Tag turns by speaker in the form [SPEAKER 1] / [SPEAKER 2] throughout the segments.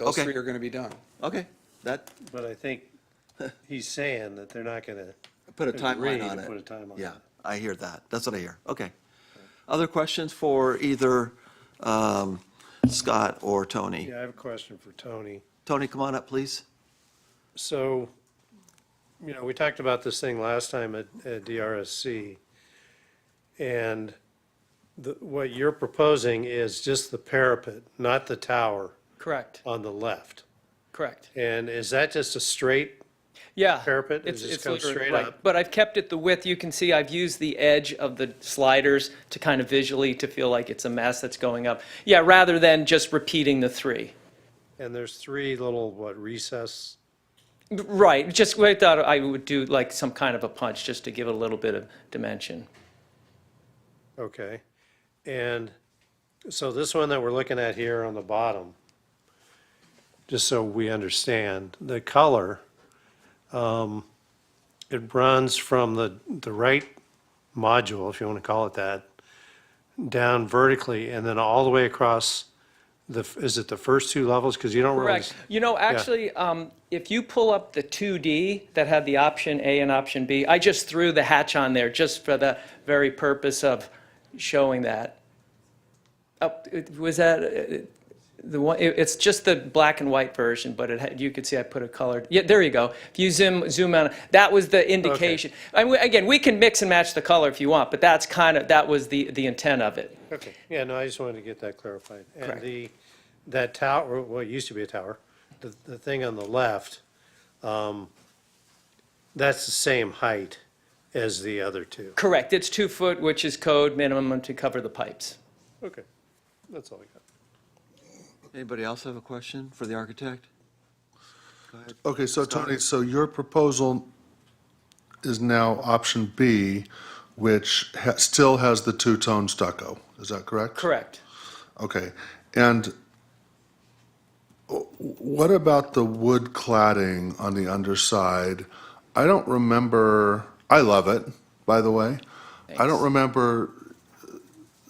[SPEAKER 1] Those
[SPEAKER 2] Okay.
[SPEAKER 1] three are going to be done.
[SPEAKER 2] Okay, that,
[SPEAKER 3] But I think he's saying that they're not gonna.
[SPEAKER 2] put a
[SPEAKER 3] agree
[SPEAKER 2] timeline
[SPEAKER 3] to
[SPEAKER 2] on it.
[SPEAKER 3] Put a timeline.
[SPEAKER 2] Yeah, I hear that. That's what I hear. Okay. Other questions for either um, Scott or Tony?
[SPEAKER 3] Yeah, I have a question for Tony.
[SPEAKER 2] Tony, come on up, please.
[SPEAKER 3] So, you know, we talked about this thing last time at, at DRSC. And the, what you're proposing is just the parapet, not the tower
[SPEAKER 4] Correct,
[SPEAKER 3] on the left.
[SPEAKER 4] correct.
[SPEAKER 3] And is that just a straight,
[SPEAKER 4] Yeah.
[SPEAKER 3] Parapet, it
[SPEAKER 4] it's-
[SPEAKER 3] just
[SPEAKER 4] it's
[SPEAKER 3] comes
[SPEAKER 4] literally-
[SPEAKER 3] straight
[SPEAKER 4] right.
[SPEAKER 3] up.
[SPEAKER 4] But I've kept it the width, you can see I've used the edge of the sliders to kind of visually to feel like it's a mess that's going up. Yeah, rather than just repeating the three.
[SPEAKER 3] and there's three little, what, recess?
[SPEAKER 4] Right, just, I thought I would do like some kind of a punch just to give it a little bit of dimension.
[SPEAKER 3] Okay. And so this one that we're looking at here on the bottom, just so we understand, the color, um, it runs from the, the right module, if you want to call it that, down vertically and then all the way across the, f- is it the first two levels? Because you don't really.
[SPEAKER 4] Correct. You know, actually, um, if you pull up the 2D that had the option A and option B, I just threw the hatch on there just for the very purpose of showing that. Oh, it- Was that uh, the one, it- it's just the black and white version, but it had, you could see I put a colored, yeah, there you go. If you zoom, zoom out, that was the indication. I mean, Again, we can mix and match the color if you want, but that's kind of, that was the, the intent of it.
[SPEAKER 3] Okay, yeah, no, I just wanted to get that clarified. And
[SPEAKER 4] Correct.
[SPEAKER 3] the, that tower, well, it used to be a tower, the, the thing on the left, um, that's the same height as the other two.
[SPEAKER 4] Correct. It's two foot, which is code minimum to cover the pipes.
[SPEAKER 3] Okay, that's all I got.
[SPEAKER 2] Anybody else have a question for the architect?
[SPEAKER 5] Okay, so Tony, so your proposal is now option B, which ha- still has the two-tone stucco, is that correct?
[SPEAKER 4] Correct.
[SPEAKER 5] Okay, and what about the wood cladding on the underside? I don't remember, I love it, by the way. I don't remember,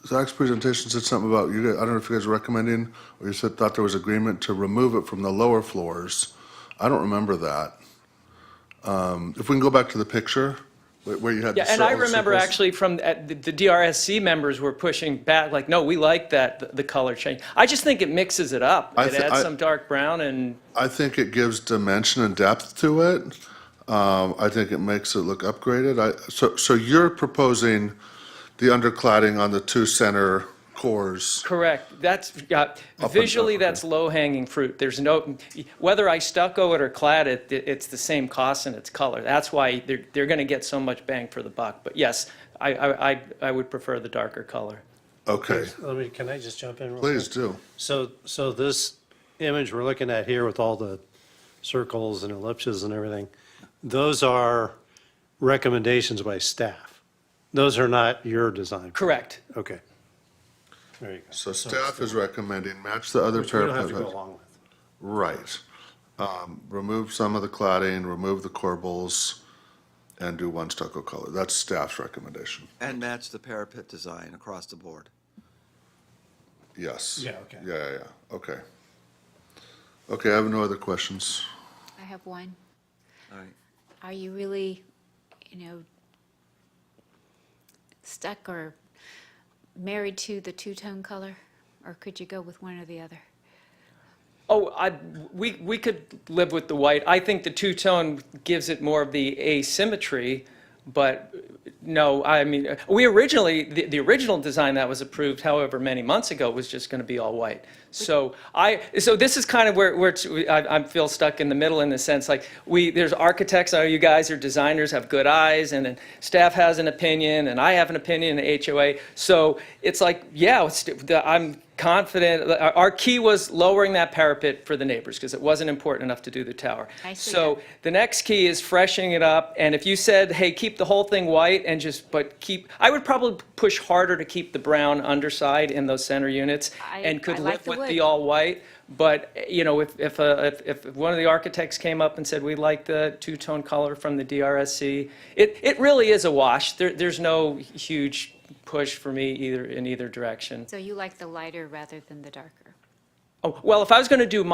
[SPEAKER 5] Zach's presentation said something about you guys, I don't know if you guys were recommending, or you said, thought there was agreement to remove it from the lower floors. I don't remember that. Um, If we can go back to the picture, where where you had the
[SPEAKER 4] Yeah, and I
[SPEAKER 5] circle-
[SPEAKER 4] remember
[SPEAKER 5] circles.
[SPEAKER 4] actually from, at the the DRSC members were pushing back, like, no, we like that, th- the color change. I just think it mixes it up.
[SPEAKER 5] I
[SPEAKER 4] It
[SPEAKER 5] thi-
[SPEAKER 4] adds
[SPEAKER 5] I-
[SPEAKER 4] some dark brown and,
[SPEAKER 5] I think it gives dimension and depth to it. Um, I think it makes it look upgraded. I, so, so you're proposing the undercladding on the two center cores.
[SPEAKER 4] correct, that's, yeah, visually, that's low-hanging fruit. There's no, whether I stucco it or clad it, th- it's the same cost and it's color. That's why they're, they're going to get so much bang for the buck. But yes, I, I, I- I would prefer the darker color.
[SPEAKER 5] Okay,
[SPEAKER 3] Let me, can I just jump in? real quick?
[SPEAKER 5] please do.
[SPEAKER 3] So, so this image we're looking at here with all the circles and ellipses and everything, those are recommendations by staff. Those are not your design.
[SPEAKER 4] Correct.
[SPEAKER 3] Okay. There you go.
[SPEAKER 5] So staff is recommending match the other
[SPEAKER 3] Which we don't have to go
[SPEAKER 5] parapet.
[SPEAKER 3] along with.
[SPEAKER 5] Right. Um, remove some of the cladding, remove the corbels, and do one stucco color. That's staff's recommendation.
[SPEAKER 2] And match the parapet design across the board.
[SPEAKER 5] Yes.
[SPEAKER 3] Yeah, okay.
[SPEAKER 5] Yeah, yeah, yeah, okay. Okay, I have no other questions.
[SPEAKER 6] I have one.
[SPEAKER 2] All right.
[SPEAKER 6] Are you really, you know, stuck or married to the two-tone color? Or could you go with one or the other?
[SPEAKER 4] Oh, I, we, we could live with the white. I think the two-tone gives it more of the asymmetry, but no, I mean, we originally, the, the original design that was approved however many months ago was just going to be all white. So I, so this is kind of where, where it's- I, I feel stuck in the middle in the sense, like, we, there's architects, oh, you guys are designers, have good eyes, and then staff has an opinion, and I have an opinion, and HOA. So it's like, yeah, it's- the- I'm confident, our our key was lowering that parapet for the neighbors, because it wasn't important enough to do the tower.
[SPEAKER 6] I see
[SPEAKER 4] So
[SPEAKER 6] that.
[SPEAKER 4] the next key is freshening it up, and if you said, hey, keep the whole thing white and just, but keep, I would probably push harder to keep the brown underside in those center units,
[SPEAKER 6] I-
[SPEAKER 4] and could
[SPEAKER 6] I like
[SPEAKER 4] live
[SPEAKER 6] the
[SPEAKER 4] with
[SPEAKER 6] wood.
[SPEAKER 4] the all-white, but, you know, if, if, uh, if if one of the architects came up and said, we like the two-tone color from the DRSC, it, it really is a wash, there, there's no huge push for me either, in either direction.
[SPEAKER 6] So you like the lighter rather than the darker?
[SPEAKER 4] Oh, well, if I was going to do